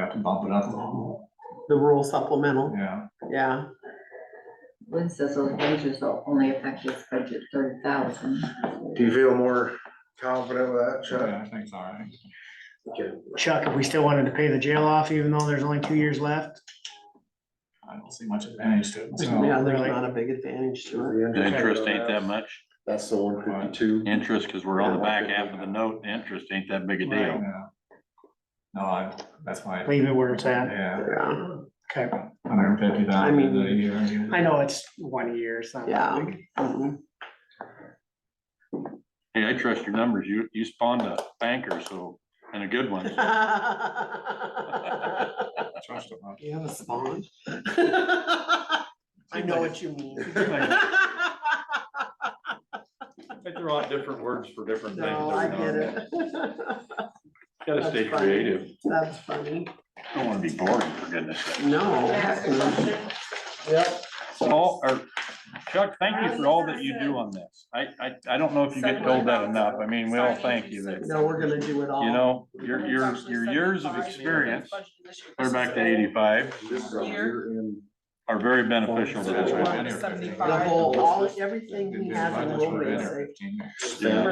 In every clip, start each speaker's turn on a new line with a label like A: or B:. A: to bump it up a little,
B: the rural supplemental,
A: yeah.
B: yeah.
C: Lynn says those wages will only affect his budget thirty thousand.
D: Do you feel more confident with that, Chuck?
A: Yeah, I think it's all right.
E: Chuck, if we still wanted to pay the jail off, even though there's only two years left,
A: I don't see much advantage to it, so.
B: Yeah, there's
E: really.
B: not a big advantage to it.
F: The interest ain't that much,
D: That's the one fifty-two.
F: interest, cause we're on the back half of the note, the interest ain't that big a
E: Right.
F: deal.
A: yeah. No, I, that's my,
E: leave it where it's at.
A: yeah,
B: Yeah,
E: Okay.
A: hundred and fifty
B: I
A: thousand
B: mean,
A: a year. yeah.
E: I know it's one year, it's not that
B: Yeah.
E: big.
B: mhm.
F: Hey, I trust your numbers, you, you spawned a banker, so, and a good one.
A: Trust them, huh?
B: You have a spawn? I know what you mean.
F: I throw out different words for different
B: No, I get it.
F: Gotta
B: That's
F: stay
B: fine.
F: creative,
B: That's funny.
F: don't wanna be boring, for goodness sake.
B: No. heck no.
F: Paul, or Chuck, thank you for all that you do on this. I, I, I don't know if you get told that enough. I mean, we all thank you that,
B: No, we're gonna do it all.
F: you know, your, your, your years of experience, clear back to eighty-five, are very beneficial to
A: That's
F: this
A: why I've
F: one.
A: been here for everything.
B: The whole, all, everything
A: Didn't
B: he
A: do
B: has
A: much
B: in
A: for
B: rural
A: rent or
B: basic.
A: fifteen.
F: Yeah.
E: I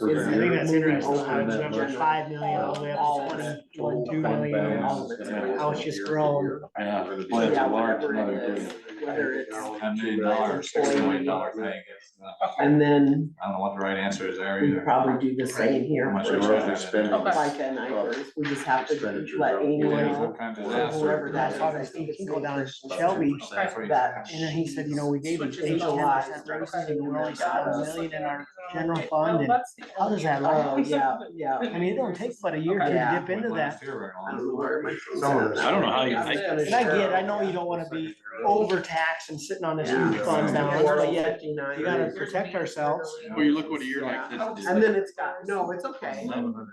E: think that's interesting, how
D: Moving
E: it's went
D: over.
E: from five million all the way up to twenty, twenty-two million, all of it. how it's just grown.
F: Yeah, well, it's a
B: Yeah,
F: large
B: whatever
F: amount of
B: it
F: good.
B: is, whether it's,
A: Ten million dollars, six million dollar thing, it's, uh,
B: and then
A: I don't know what the right answer is there
B: we
A: either.
B: probably do the same
A: How
B: here.
A: much
D: We're overspending.
B: FICA and IFRS, we just have to
D: Expenditure
B: let
D: up.
B: Amy
A: Yeah,
B: know,
A: what kind of
D: Or
B: or
A: disaster.
B: whoever that
E: That's
B: is.
E: why
B: I
E: they
B: think it's
E: go down to
B: Nutrition.
E: Shelby,
A: That's what you-
B: that-
E: and then he said, you know, we gave
G: Switches
E: the agent
G: it all.
E: ten percent raises and we only got a million in our general fund, and how does that
B: Oh,
E: last?
B: yeah, yeah.
E: I mean, it'll take but a year
B: Yeah.
E: to dip into
A: When
E: that.
A: last year we were
B: I
A: on-
B: don't know where my.
D: Some of this-
F: I don't know how you,
B: I was
F: I,
B: gonna
E: And I get, it, I know
B: share.
E: you don't wanna be overtaxed and sitting on this huge
B: Yeah.
E: fund balance, but yet
B: $4.59.
E: you gotta protect ourselves.
F: well, you look what a year like
B: Yeah.
F: this
B: And
F: did.
B: then it's got, no, it's okay,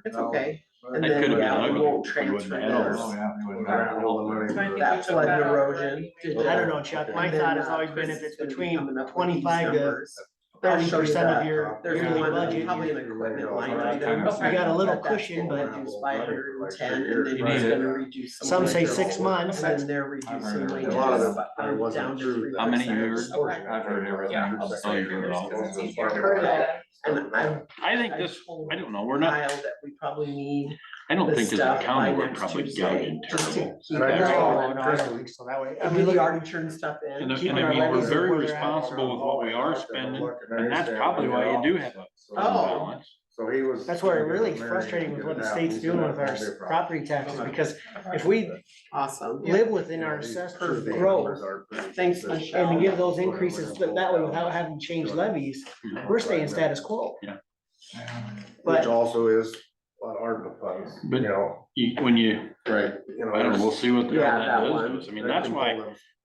B: it's okay. And
F: It
B: then,
F: could have been
B: yeah, we
F: ugly.
B: won't
F: We wouldn't
B: transfer
F: have had
B: this.
F: all
A: Oh, yeah, we would've
D: Around
A: done
D: all the money.
B: That flood and erosion.
E: I don't know, Chuck, my thought
B: uh,
E: has always been if it's between twenty-five to
B: I'll
E: thirty
B: show you
E: percent of
B: that.
E: your
D: There's
E: yearly
D: one,
E: budget.
B: Probably an equipment line item.
E: You got a little
B: But that's
E: cushion,
B: gonna
E: but
B: Reduce by hundred and ten, and then
A: Right.
B: it's gonna reduce.
E: some say
B: wages.
E: six months.
B: And then they're
A: I've heard
B: reducing
A: it.
B: wages.
A: A lot of
D: it,
B: but
D: it
B: I'm
D: wasn't
B: down to
D: true.
B: 3%.
F: How many years?
A: that. I've heard everything.
G: Yeah.
F: Oh, you heard it all.
B: And I'm
F: I think this, I don't know, we're not,
B: mild that we probably need
F: I don't
B: this
F: think as a
B: stuff by
F: county, we're
B: next
F: probably
B: Tuesday.
F: gouging
B: just
F: terrible.
B: to keep
D: And I
B: it
D: just-
B: all
E: No,
B: in
E: no, I
B: our-
E: don't think so, that way.
B: I
E: I mean,
B: mean,
E: look
B: we
E: at-
B: already turned stuff in.
F: And, I- and I mean, we're very responsible with what we are spending, and that's probably why you do have a fund
B: Oh.
F: balance.
D: So he was.
E: that's where it really is frustrating with what the state's doing with our s- property taxes, because if we
B: Awesome.
E: live within our assessed growth
B: Thanks, Michelle.
E: and give those increases that that way without having to change levies, we're staying status quo.
D: Which
E: But
D: also is a lot of ARPA funds, you
F: But-
D: know,
F: You, when you,
D: right. you know,
F: I don't know, we'll see what the,
B: Yeah,
F: that
B: that
F: does to
B: one.
F: us. I mean, that's why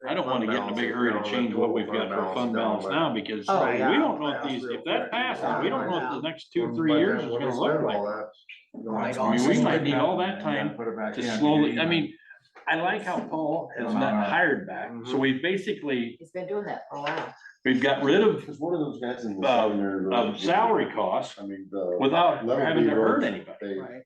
F: I don't wanna get in a big hurry to change what we've got for fund balance now, because
B: Oh,
F: we
B: yeah.
F: don't know if these, if that passes, we don't know if the next two, three years is gonna look like.
D: like.
F: I mean, we might need all that time to slowly, I mean, I like how Paul has
B: Uh-huh.
F: not hired back,
B: Mm-hmm.
F: so we basically,
C: He's been doing that for a while.
F: we've got rid of,
D: Cause one of those guys in
F: Uh, of salary costs
D: I mean, the.
F: without having to hurt anybody.
D: anybody.
B: Right.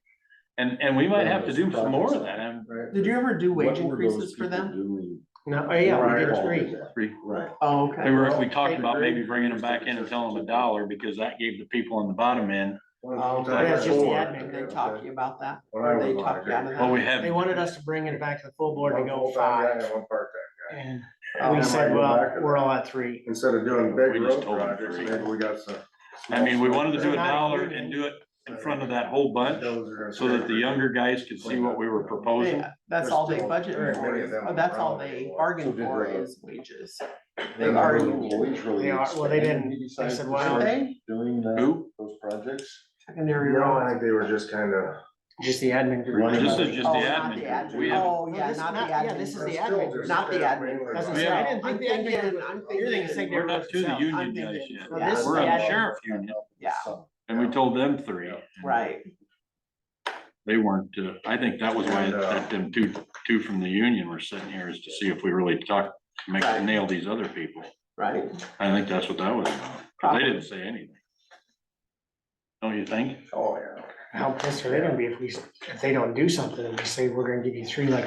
F: And, and we might have to do some more of that, and
B: Did you ever do wage increases for them?
E: No, oh yeah, we did three. Um,
F: we
D: Right.
B: Oh, okay.
F: were, we talked about maybe bringing them back in and telling them a dollar, because that gave the people on the bottom end,
B: Oh,
E: Yeah, it's just the
B: Did
E: admin.
B: they talk to you about that?
D: When I
B: Or they
D: was
B: talked you out of
D: hired.
B: that?
F: well, we have.
E: They wanted us to bring it back to the full board
D: One
E: and go
D: full-time guy
E: five.
D: and one part-time guy.
E: And
B: Oh,
E: we said,
D: go back
E: well,
D: to
E: we're
D: that.
E: all at three.
D: Instead of doing big
F: We just
D: road
F: told them
D: projects,
F: three.
D: maybe we got some.
F: I mean, we wanted to do a
E: They're not
F: dollar
E: union.
F: and do it in front of that whole bunch, so that the younger guys could see what we were proposing.
B: Yeah, that's all they budget for, is- oh, that's all they bargain for is wages. They are
E: They are- well, they didn't. They said,
B: Aren't
E: well,
B: they?
D: Doing
F: Who?
D: those projects?
B: Secondary
D: No,
B: roads.
D: I think they were just kind of.
E: just the admin group.
D: Running
F: This is just the
B: Oh, not
F: admin. group. We have,
B: Oh, yeah,
E: This-
B: not the
E: not- yeah,
B: admin.
E: this is the
B: group.
E: admin
B: not the admin
E: That's what
F: We
E: I'm saying.
F: have-
E: I didn't
B: I'm
E: think the admin
B: thinking,
E: group.
B: I'm
E: You're thinking
B: thinking,
F: we're not to the
E: Yeah,
B: I'm
F: union guys
B: thinking-
F: yet.
B: well, this is
F: We're on
B: the
F: the
B: admin.
F: sheriff union,
B: yeah,
F: and we told them three.
B: right.
F: They weren't, uh, I think that was why that them two, two from the union were sitting here is to see if we really talk, make,
B: Right.
F: nail these other people.
B: Right.
F: I think that's what that was about. 'cause They didn't say anything. Don't you think?
D: Oh, yeah.
E: How pissed are they gonna be if we, if they don't do something and we say, we're gonna give you three like